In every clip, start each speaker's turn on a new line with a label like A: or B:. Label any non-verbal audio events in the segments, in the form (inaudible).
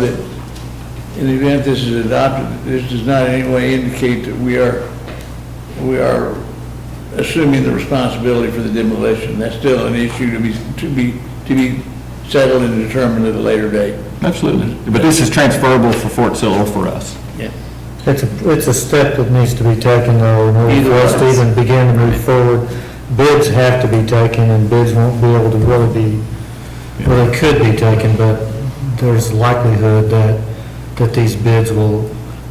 A: that in the event this is adopted, this does not in any way indicate that we are, we are assuming the responsibility for the demolition. That's still an issue to be, to be, to be settled and determined at a later date.
B: Absolutely. But this is transferable for Fort Sill for us.
A: Yeah.
C: It's a, it's a step that needs to be taken though, in order for us to even begin to move forward. Bids have to be taken and bids won't be able to really be, well, they could be taken, but there's likelihood that, that these bids will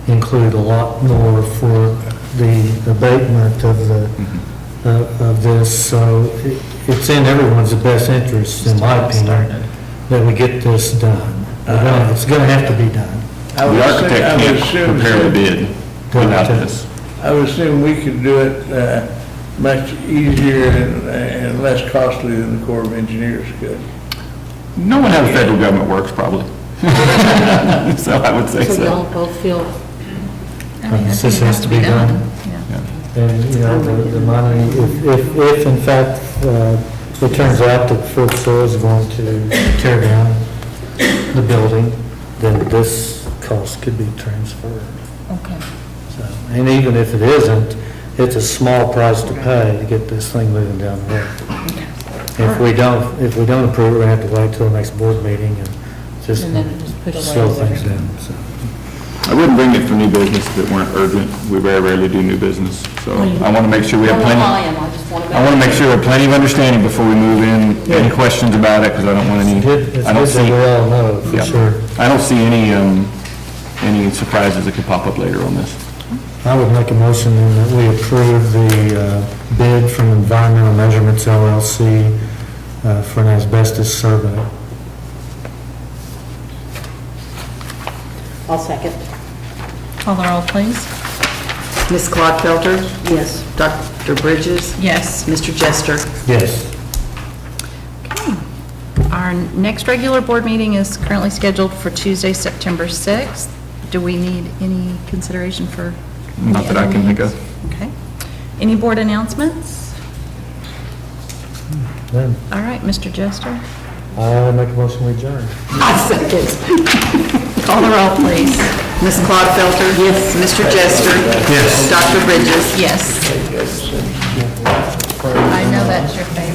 C: include a lot more for the abatement of the, of of this. So it- it's in everyone's best interest, in my opinion, that we get this done. We're gonna- It's gonna have to be done.
A: I would
B: The
A: assume-
B: architect
A: I would
B: can't
A: assume-
B: prepare the bid without this.
A: I would assume we could do it, uh, much easier and, and less costly than the Corps of Engineers could.
B: No one how the federal government works, probably. (laughs) So I would say
D: So
B: so.
D: y'all both feel.
C: This has to be done. And, you know, the the money, if, if, if in fact, uh, it turns out that Fort Sill is going to tear down the building, then this cost could be transferred.
D: Okay.
C: So, And even if it isn't, it's a small price to pay to get this thing moving down the road. If we don't, if we don't approve, it, we have to wait till the next board meeting and just
D: And then just put it away.
C: slow things down, so.
B: I wouldn't bring it for new business that weren't urgent. We very rarely do new business, so I want to make sure we have plenty.
D: I am, I just want to.
B: I want to make sure we have plenty of understanding before we move in. Any questions about it, because I don't want any,
C: It's good, it's
B: I don't
C: good that
B: see,
C: we all know,
B: Yeah.
C: for sure.
B: I don't see any, um, any surprises that could pop up later on this.
C: I would make a motion then that we approve the uh, bid from Environmental Measurements LLC uh, for an asbestos survey.
E: I'll second.
D: Call the roll, please.
E: Ms. Klodfelter? Yes. Dr. Bridges?
D: Yes.
E: Mr. (laughs) Jester?
C: Yes.
F: Our next regular board meeting is currently scheduled for Tuesday, September 6th. Do we need any consideration for? any
B: Not that I
F: other
B: can think of.
F: meetings? Okay. Any board announcements?
C: Then,
F: All right, Mr. Jester,
C: I would make a motion we adjourn.
E: I second.
F: call the roll, please.
E: Ms. Klodfelter? Yes. Mr. Jester? Yes. Dr. Bridges?
F: Yes. I know that's your favorite.